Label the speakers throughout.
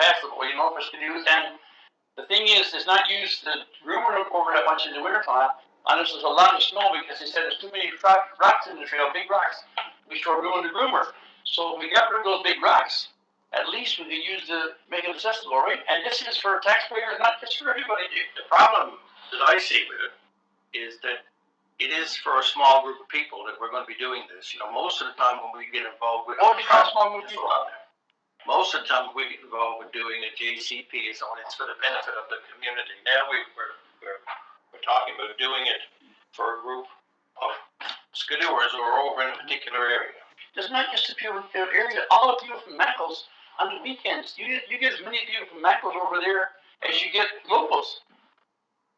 Speaker 1: help us to do. And the thing is, is not use the rumor over that much in the wintertime unless there's a lot of snow because they said there's too many rock, rocks in the trail, big rocks, which will ruin the groomer. So we got rid of those big rocks. At least we could use the make it accessible, right? And this is for taxpayers, not just for everybody.
Speaker 2: The problem that I see with it is that it is for a small group of people that we're going to be doing this. You know, most of the time when we get involved with
Speaker 1: Only for a small group of people.
Speaker 2: most of the time we get involved with doing a JCP is on it's for the benefit of the community. Now we, we're, we're, we're talking about doing it for a group of skidooers who are over in a particular area.
Speaker 1: There's not just the people in the area. All of you from Mackles on the weekends, you get, you get as many people from Mackles over there as you get locals.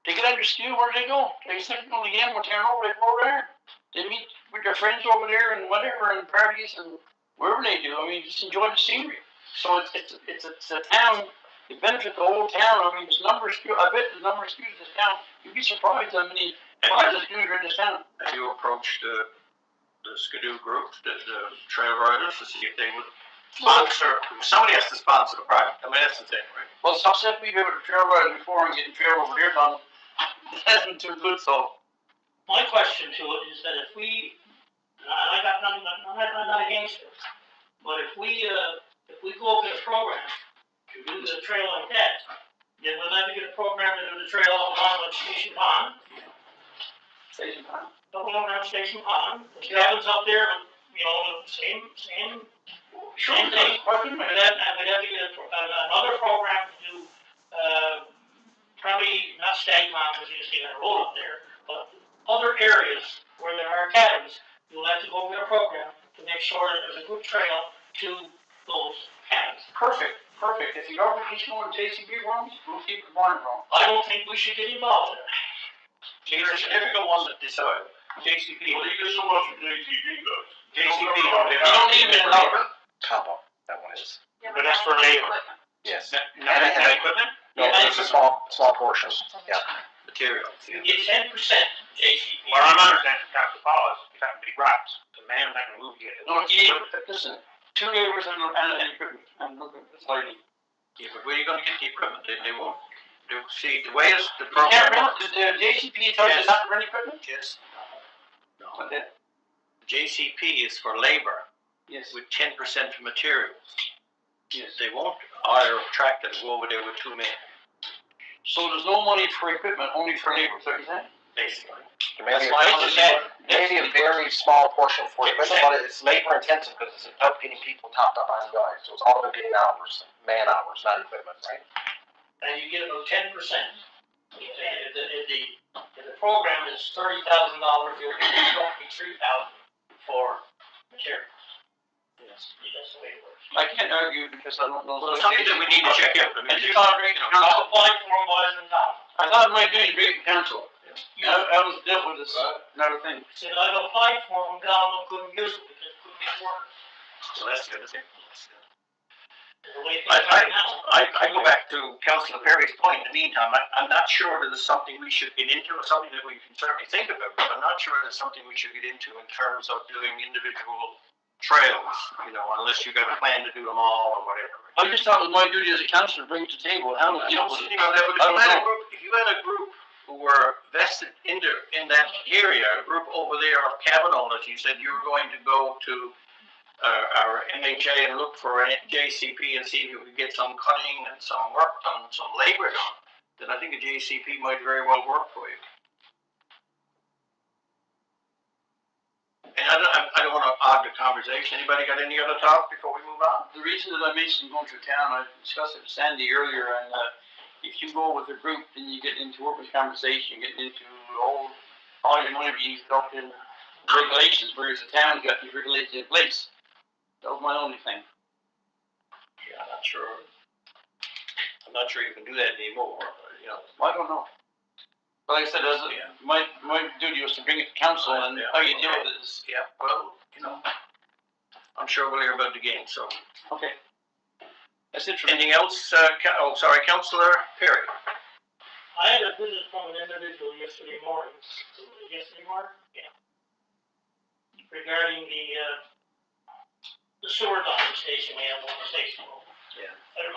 Speaker 1: They get under steel, where do they go? They sit on the end, we're tearing over, they go over there. They meet with their friends over there and whatever, and parties and wherever they do. I mean, just enjoy the scenery. So it's, it's, it's, it's a town, it benefits the whole town. I mean, it's numbers, I bet the number of students in this town, you'd be surprised how many
Speaker 2: And
Speaker 1: lives of students are in this town.
Speaker 2: if you approach the, the skidoo group, the, the trail riders, to see if they would sponsor, somebody has to sponsor the project. I mean, that's the thing, right?
Speaker 1: Well, it's upset we do it with trail riding before and getting trail over here done. It hasn't too good, so.
Speaker 3: My question to it is that if we, and I got nothing, I'm not, I'm not against this, but if we, uh, if we go over the program to do the trail like that, then we'll never get a program to do the trail along with Station Pond,
Speaker 1: Station time.
Speaker 3: along around Station Pond, the cabins up there, you know, same, same
Speaker 1: Sure, we can. Why couldn't we?
Speaker 3: We'd have, we'd have to get a pro- an- another program to do, uh, probably not Stag Mountain, because you just get a road up there, but other areas where there are cabins, you'll have to go with a program to make sure that there's a good trail to those cabins.
Speaker 1: Perfect, perfect. If the government keeps going JCB wrongs, we'll keep it going wrong.
Speaker 3: I don't think we should get involved in that.
Speaker 2: There's difficult ones that decide. JCP.
Speaker 4: Well, you get so much from JTG guys.
Speaker 2: JCP.
Speaker 1: We don't need it at all.
Speaker 5: Combo, that one is,
Speaker 6: Yeah,
Speaker 4: But that's for
Speaker 6: that's
Speaker 4: labor.
Speaker 6: equipment.
Speaker 5: yes.
Speaker 2: equipment?
Speaker 5: No, it's a small, small portion, yeah.
Speaker 2: Material.
Speaker 3: You get ten percent JCP.
Speaker 4: Well, I'm understanding Dr. Paul is trying to be right. The man that can move you.
Speaker 1: No, you need, listen, two neighbors and, and, and equipment, and look at this lady.
Speaker 2: Yeah, but where are you gonna get the equipment? They, they won't, they, see, the way is, the
Speaker 1: You can't
Speaker 2: program
Speaker 1: rent,
Speaker 2: works
Speaker 1: the the JCP tells you
Speaker 2: Yes.
Speaker 1: not to rent equipment?
Speaker 2: is, no,
Speaker 1: Okay.
Speaker 2: JCP is for labor
Speaker 1: Yes,
Speaker 2: with ten percent for materials.
Speaker 1: yes.
Speaker 2: They won't hire a tractor to go over there with two men,
Speaker 1: So there's no money for equipment, only for labor, is that what you're saying?
Speaker 2: basically.
Speaker 5: Maybe,
Speaker 2: That's why I
Speaker 1: it's a
Speaker 2: was saying,
Speaker 1: labor.
Speaker 5: maybe a very small portion for it, but it's labor intensive because it's about getting people topped up on guys, so it's all about getting hours, man hours, not equipment, right?
Speaker 3: and you get about ten percent. If the, if the, if the, if the program is thirty thousand dollars, you're getting roughly three thousand for material. Yes. That's the way it works.
Speaker 1: I can't argue because I don't know.
Speaker 2: Well, it's something that we need to check out. I
Speaker 1: I
Speaker 2: mean,
Speaker 1: just
Speaker 2: you-
Speaker 1: thought, Drake,
Speaker 2: you know,
Speaker 1: Council,
Speaker 3: I'll apply for more than that.
Speaker 1: I thought it might be in Drake Council. I, I was dealt with this, another thing.
Speaker 3: Said I've applied for them, God, I couldn't use them because it couldn't work.
Speaker 2: So that's the other thing.
Speaker 3: The way
Speaker 2: I,
Speaker 3: things are now.
Speaker 2: I, I go back to Councilor Perry's point, in the meantime, I, I'm not sure that it's something we should get into, or something that we can certainly think about, but I'm not sure it's something we should get into in terms of doing individual trails, you know, unless you got a plan to do them all or whatever.
Speaker 1: I just thought it was my duty as a counselor to bring it to the table, how
Speaker 2: Well,
Speaker 1: do
Speaker 2: you
Speaker 1: you
Speaker 2: know,
Speaker 1: know?
Speaker 2: if you had a group- if you had a group who were vested in the, in that area, a group over there of cabin owners, you said you were going to go to uh, our MHA and look for a JCP and see if you could get some cutting and some work done, some labor done, then I think a JCP might very well work for you. And I don't, I- I don't wanna hog the conversation. Anybody got any other thoughts before we move on?
Speaker 1: The reason that I mentioned going through town, I discussed it with Sandy earlier, and, uh, if you go with a group, then you get into workers' compensation, you get into all, all your money being dumped in regulations, whereas the town's got these regulations in place. That was my only thing.
Speaker 2: Yeah, I'm not sure. I'm not sure you can do that anymore, but, you know.
Speaker 1: Well, I don't know. But like I said, as, a-
Speaker 2: Yeah.
Speaker 1: my, my duty was to bring it to council, and
Speaker 2: Yeah.
Speaker 1: how you deal with it is,
Speaker 2: Yeah, well, you know, I'm sure we'll hear about the game, so.
Speaker 1: okay. That's it for me.
Speaker 2: Anything else, uh, Ca- oh, sorry, Counselor Perry?
Speaker 3: I had a visit from an individual yesterday morning, yesterday morning? Yeah. Regarding the, uh, the sewer dumping station we have on the station.
Speaker 2: Yeah.
Speaker 3: I don't